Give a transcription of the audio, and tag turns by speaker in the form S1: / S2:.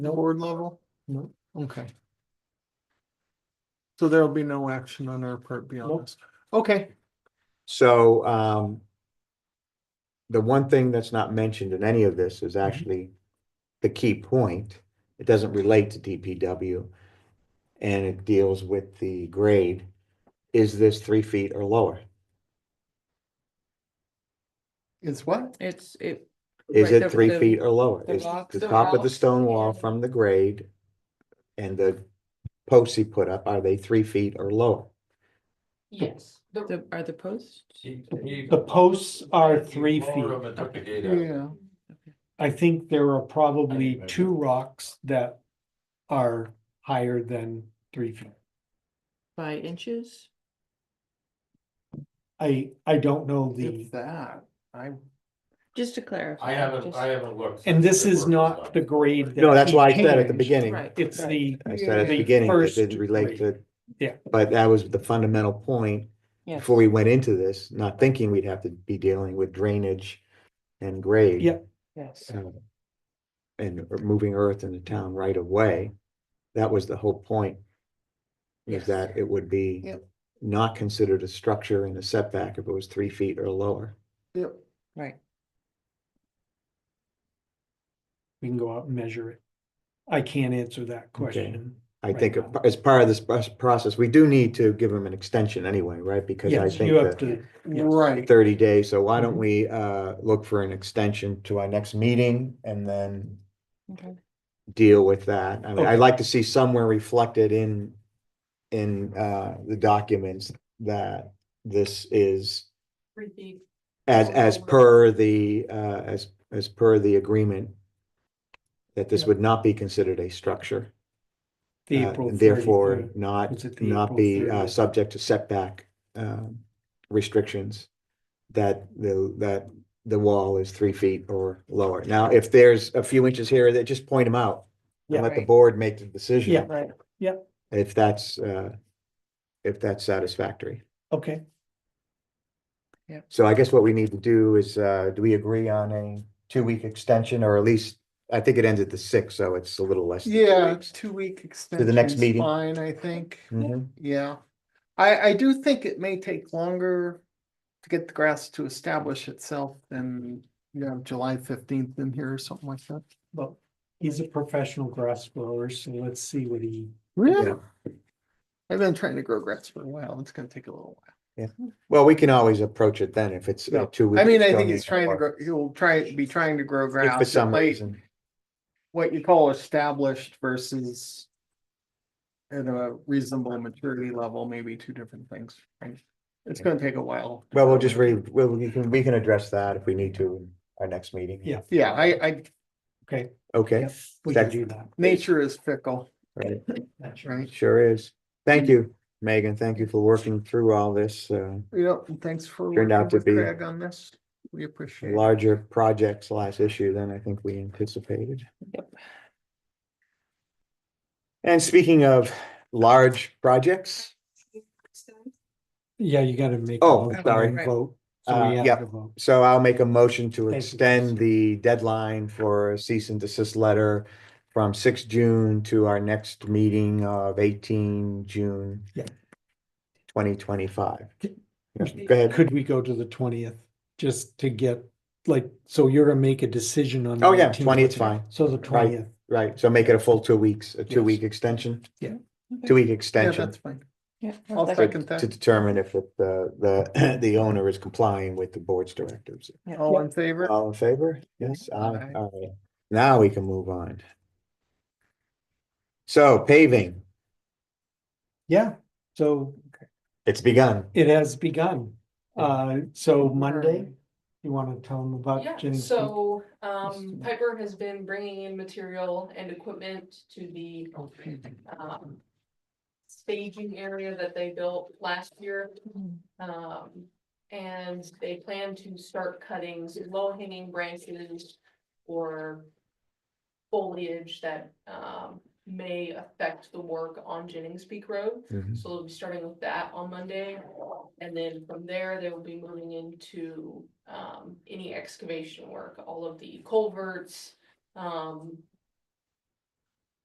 S1: No.
S2: board level?
S1: No.
S2: Okay. So there'll be no action on our part beyond
S1: Nope.
S2: this. Okay,
S3: So, um, the one thing that's not mentioned in any of this
S4: Mm-hmm.
S3: is actually the key point. It doesn't relate to DPW. And it deals with the grade. Is this three feet or lower?
S2: it's what?
S4: It's it.
S3: Is
S4: right,
S3: it
S4: the-
S3: three
S4: the-
S3: feet or lower?
S4: the
S3: Is
S4: rocks,
S3: the
S4: the
S3: top of the
S4: rocks,
S3: stone wall
S4: yeah.
S3: from the grade and the posts he put up, are they three feet or lower?
S5: Yes.
S4: The, are the posts?
S1: The
S5: The
S1: posts are three feet.
S2: Yeah,
S1: I think there are probably
S5: measure.
S1: two rocks that are higher than three feet.
S4: By inches?
S1: I, I don't know the,
S2: it's that. I,
S4: Just to clarify.
S5: I haven't,
S4: just-
S5: I haven't looked.
S1: and this
S5: since
S1: is
S5: I
S1: not
S5: worked
S1: the
S5: with
S1: grade. that
S3: No, that's
S1: he
S3: why I said at the
S1: changed.
S3: beginning.
S4: Right.
S1: It's the,
S3: I said at
S1: The
S3: the beginning, it
S1: first
S3: didn't relate to.
S1: Yeah.
S3: But that was the fundamental point
S4: Yeah.
S3: before we went into this, not thinking we'd have to be dealing with drainage and grade.
S1: Yep.
S4: Yes.
S3: so, And moving earth in the town right away. That was the whole point. Is
S5: Yes.
S3: that it would be
S2: Yep.
S3: not considered a structure and a setback if it was three feet or lower.
S2: yep,
S4: Right.
S1: we can go out and measure it. I can't answer that question.
S3: I
S1: Right.
S3: think as part of this pro- process, we do need to give them an extension anyway, right? Because I
S1: Yes,
S3: think
S1: you have
S3: that.
S1: to, Yes.
S2: right.
S3: thirty days, so why don't
S1: Mhm.
S3: we uh look for an extension to our next meeting and then
S4: Okay.
S3: deal with that? I mean,
S1: Okay.
S3: I'd like to see somewhere reflected in in uh the documents that this is
S5: three feet.
S3: as as per the uh as as per the agreement that this
S1: Yeah.
S3: would not be considered a structure,
S1: the
S3: uh,
S1: April
S3: and
S1: 30.
S3: therefore not
S1: Was it the
S3: not
S1: April
S3: be uh
S1: 30?
S3: subject to setback um restrictions. That the that the wall is three feet or lower. Now, if there's a few inches here, that just point them out.
S1: Yeah.
S3: And let the board make the decision.
S1: Yeah.
S4: Right.
S3: If that's uh, if that's satisfactory.
S1: Okay,
S3: So I guess what we need to do is, uh, do we agree on a two-week extension or at least, I think it ends at the sixth, so it's a little less. than two
S2: Yeah,
S3: weeks.
S2: two week extension.
S3: the next meeting.
S2: Fine, I think.
S3: Mhm.
S2: Yeah, I, I do think it may take longer to get the grass to establish itself than, you know, July fifteenth in here or something like that.
S1: well, he's a professional grass grower, so let's see what he,
S2: Really? I've been trying to grow grass for a while. It's gonna take a little
S3: Well, we can always approach it then if it's
S2: Yeah.
S3: uh, two
S2: while.
S3: weeks.
S2: I mean, I
S3: don't
S2: think
S3: need
S2: he's trying to
S3: work.
S2: grow, he'll try, be trying to grow
S3: If
S2: grass.
S3: for
S2: at
S3: some
S2: late-
S3: reason.
S2: What you call established versus at a reasonable maturity level, maybe two different things, right? It's
S3: Okay.
S2: gonna take a while.
S3: Well, we'll just read, well, we can, we can address that if we need to in our next meeting.
S1: Yeah.
S2: Yeah, I, I,
S1: okay,
S3: Okay,
S1: Yep. we can
S3: That's-
S1: do that.
S2: nature is fickle,
S3: right,
S1: That's
S2: right?
S3: sure is. Thank you, Megan. Thank you for working through all this, uh,
S2: Yeah, and thanks for
S3: Turned
S2: working
S3: out to
S2: with
S3: be
S2: Craig on this. We appreciate it.
S3: larger project slash issue than I think we anticipated.
S4: Yep.
S3: And speaking of large projects,
S1: Yeah, you gotta make. a
S3: Oh,
S1: motion
S3: sorry.
S1: and Vote.
S3: Uh,
S1: So we
S3: yeah.
S1: have to vote.
S3: so I'll make a motion to
S1: Thank you.
S3: extend the deadline for a cease and desist letter from six June to our next meeting of eighteen June.
S1: Yeah.
S3: Twenty twenty-five.
S1: Could-
S3: Go ahead.
S1: Could we go to the twentieth, just to get, like, so you're gonna make a decision on.
S3: Oh, yeah,
S1: 19th,
S3: 20th 's
S1: but-
S3: fine.
S1: So the twentieth,
S3: Right, so make it a full two weeks, a
S1: Yes.
S3: two-week extension?
S1: Yeah.
S4: Okay.
S3: Two-week
S2: Yeah,
S3: extension
S2: that's fine.
S4: Yeah.
S2: I'll
S3: to
S2: second
S3: to
S2: that.
S3: determine if it, uh, the, the owner is complying with the board's directives.
S2: All in favor?
S3: All in favor? Yes, aye,
S2: Aye.
S3: aye. Now we can move on. So paving,
S1: yeah, so
S3: it's begun.
S1: it has begun. Uh, so Monday, you wanna tell them
S5: Yeah,
S1: about Jenny?
S5: so, um, Piper has been bringing in material and equipment to the, um. Staging area that they built last year. Um, and they plan to start cutting low hanging branches or. Foliage that, um, may affect the work on Jennings Peak Road.
S3: Mhm.
S5: So they'll be starting with that on Monday. And then from there, they will be moving into um any excavation work, all of the culverts. Um,